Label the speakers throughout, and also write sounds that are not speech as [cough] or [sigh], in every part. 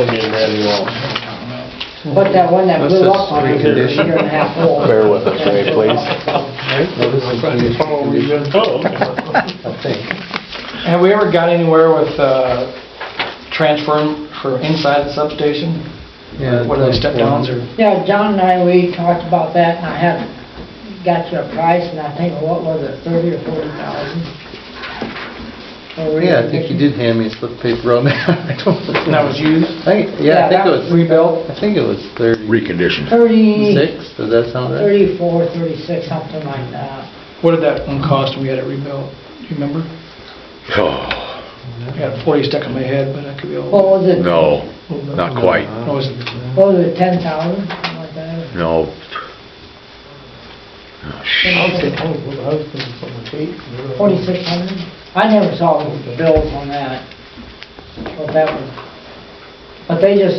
Speaker 1: Again, Randy Walsh.
Speaker 2: But that one that
Speaker 3: This
Speaker 2: blew
Speaker 3: is
Speaker 2: up on me, was a year and a half old.
Speaker 3: [laughs] Bear with us, Ray, please.
Speaker 1: Oh, okay.
Speaker 3: [laughs]
Speaker 4: Have we ever got anywhere with uh, transform for inside the substation? What are those step downs or?
Speaker 2: Yeah, John and I, we talked about that, and I haven't got you a price, and I think, what was it, thirty or forty thousand?
Speaker 3: Oh, Yeah, I think you did hand me a slip of paper on that. [laughs] I don't-
Speaker 4: And that was used?
Speaker 3: I think- Yeah, I think it was,
Speaker 4: Rebuilt?
Speaker 3: I think it was
Speaker 5: reconditioned.
Speaker 2: Thirty,
Speaker 3: 36, does that sound right?
Speaker 2: thirty-four, thirty-six, something like that.
Speaker 4: What did that one cost when we had it rebuilt? Do you remember?
Speaker 5: Oh,
Speaker 4: I got 40 stuck in my head, but I could be a
Speaker 2: What
Speaker 4: little
Speaker 2: was it, what
Speaker 5: no, not quite,
Speaker 3: Uh-huh.
Speaker 4: was it?
Speaker 2: was it, ten thousand, something like that?
Speaker 5: no. Oh,
Speaker 2: Forty-six hundred? I never saw the bills on that, what that was. But they just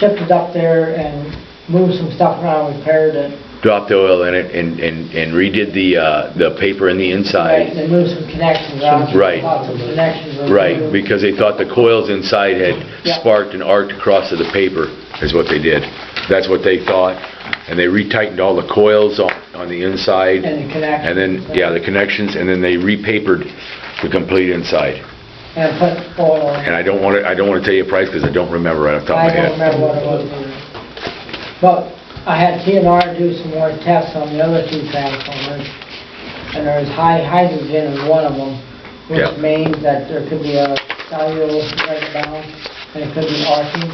Speaker 2: shipped it up there and moved some stuff around, repaired it.
Speaker 5: Dropped the oil in it and, and and redid the, uh, the paper in the
Speaker 2: Right,
Speaker 5: inside.
Speaker 2: They moved some connections around.
Speaker 5: Right.
Speaker 2: Lots of connections. around.
Speaker 5: Right, because they thought the coils inside had
Speaker 2: Yeah.
Speaker 5: sparked and arced across to the paper, is what they did. That's what they thought, and they retightened all the coils on, on the inside.
Speaker 2: And the connections.
Speaker 5: And then, yeah, the connections, and then they repapered the complete inside.
Speaker 2: And put oil on
Speaker 5: And
Speaker 2: it.
Speaker 5: I don't want to, I don't want to tell you a price, because I don't remember right off the top
Speaker 2: I
Speaker 5: of my head.
Speaker 2: don't remember what it was. But I had TNR do some more tests on the other two transformers, and there was high hydrogen in one of them,
Speaker 5: Yeah.
Speaker 2: which means that there could be a cellular breakdown, and it could be arcing.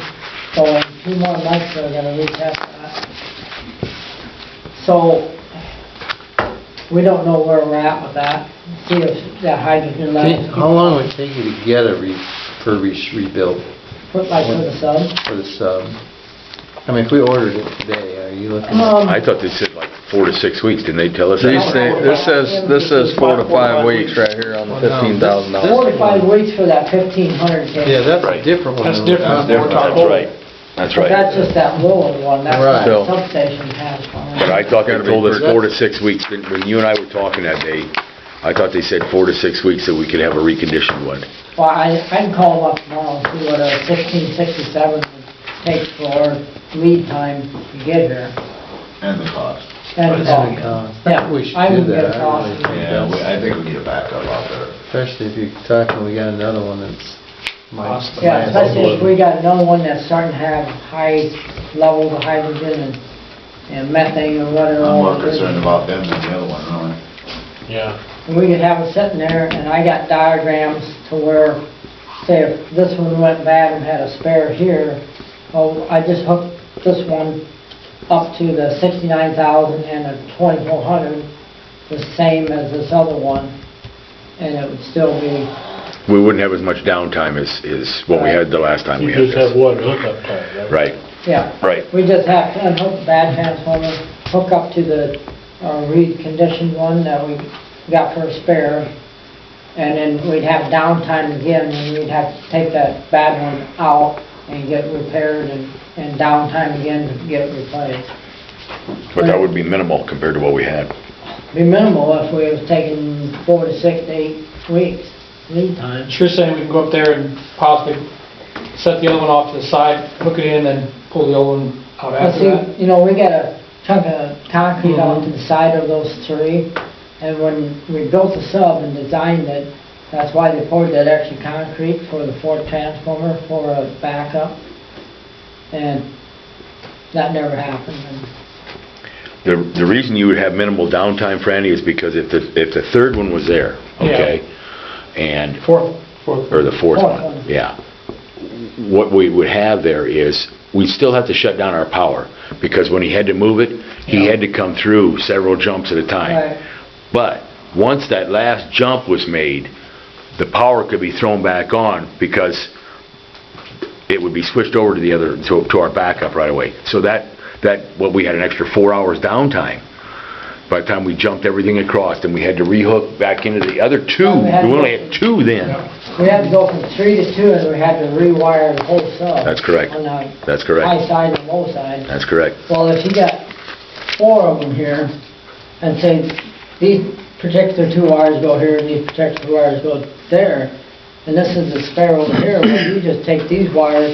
Speaker 2: So in two more months, they're gonna retest that. So, we don't know where we're at with that, see if that hydrogen
Speaker 3: See,
Speaker 2: level.
Speaker 3: How long would it take you to get a refurbished, rebuilt
Speaker 2: Put like for the sub.
Speaker 3: for the sub? I mean, if we ordered it today, are you looking at?
Speaker 2: Um,
Speaker 5: I thought they said like four to six weeks, didn't they tell us?
Speaker 6: They
Speaker 5: that?
Speaker 6: say, this says, this says four to five weeks right here on the fifteen thousand
Speaker 2: Four
Speaker 6: dollars.
Speaker 2: to five weeks for that fifteen hundred case.
Speaker 3: Yeah, that's a
Speaker 5: Right.
Speaker 3: different one.
Speaker 4: That's
Speaker 3: than-
Speaker 4: different.
Speaker 5: That's right, that's
Speaker 2: But that's
Speaker 5: right.
Speaker 2: just that lower one, that's
Speaker 3: Right.
Speaker 2: what the substation has on
Speaker 5: But I
Speaker 2: it.
Speaker 5: thought they
Speaker 6: Gotta be
Speaker 5: told us
Speaker 6: first.
Speaker 5: four to six weeks, When- when you and I were talking that day, I thought they said four to six weeks that we could have a reconditioned one.
Speaker 2: Well, I, I can call them up tomorrow and see what a sixteen sixty-seven takes for lead time to get here.
Speaker 7: And the cost.
Speaker 2: And,
Speaker 3: That's the
Speaker 2: uh,
Speaker 3: cost.
Speaker 2: yeah,
Speaker 3: We should
Speaker 2: I
Speaker 3: do
Speaker 2: would get
Speaker 3: that.
Speaker 2: a
Speaker 3: I really
Speaker 2: cost.
Speaker 3: think
Speaker 7: Yeah, we-
Speaker 3: that's-
Speaker 7: I think we need a backup out there.
Speaker 3: Especially if you're talking, we got another one that's. might-
Speaker 4: Awesome.
Speaker 2: Yeah, especially if we got another one that's starting to have high levels of hydrogen and, and methane or whatever.
Speaker 7: I'm more concerned about them than the other one, really.
Speaker 1: Yeah.
Speaker 2: And we could have it sitting there, and I got diagrams to where, say, if this one went bad and had a spare here, oh, I just hooked this one up to the sixty-nine thousand and a twenty-four hundred, the same as this other one, and it would still be,
Speaker 5: We wouldn't have as much downtime as, as what we had the last time we
Speaker 1: You
Speaker 5: had
Speaker 1: just have
Speaker 5: this.
Speaker 1: one hookup time, right?
Speaker 5: Right,
Speaker 2: yeah.
Speaker 5: right.
Speaker 2: We just have to unhook the bad transformer, hook up to the uh, reconditioned one that we got for a spare, and then we'd have downtime again, and we'd have to take that bad one out and get it repaired and, and downtime again to get it replaced.
Speaker 5: But that would be minimal compared to what we had.
Speaker 2: Be minimal if we was taking four to six to eight weeks lead time.
Speaker 4: So you're saying we can go up there and possibly set the other one off to the side, hook it in, then pull the old one out
Speaker 2: But
Speaker 4: after that? Mm-hmm.
Speaker 2: see, you know, we got a chunk of concrete on to the side of those three, and when we built the sub and designed it, that's why they poured that extra concrete for the fourth transformer for a backup, and that never happened. And
Speaker 5: The, the reason you would have minimal downtime, Franny, is because if the, if the third one was there, okay? And
Speaker 4: Fourth, fourth.
Speaker 5: or the fourth
Speaker 2: Fourth one.
Speaker 5: one, yeah. What we would have there is, we still have to shut down our power, because when he had to move it, he had to come through several jumps at a
Speaker 2: Right.
Speaker 5: time. But, once that last jump was made, the power could be thrown back on, because it would be switched over to the other, to to our backup right away. So that, that, what, we had an extra four hours downtime. By the time we jumped everything across, and we had to rehook back into the other two,
Speaker 2: Well, we had
Speaker 5: we
Speaker 2: to-
Speaker 5: only had two then.
Speaker 2: We had to go from three to two, and we had to rewire the whole sub.
Speaker 5: That's correct.
Speaker 2: On the
Speaker 5: That's
Speaker 2: high
Speaker 5: correct.
Speaker 2: side and low side.
Speaker 5: That's correct.
Speaker 2: Well, if you got four of them here, and say, these particular two wires go here, and these particular two wires go there, and this is the spare over here, well, you just take these wires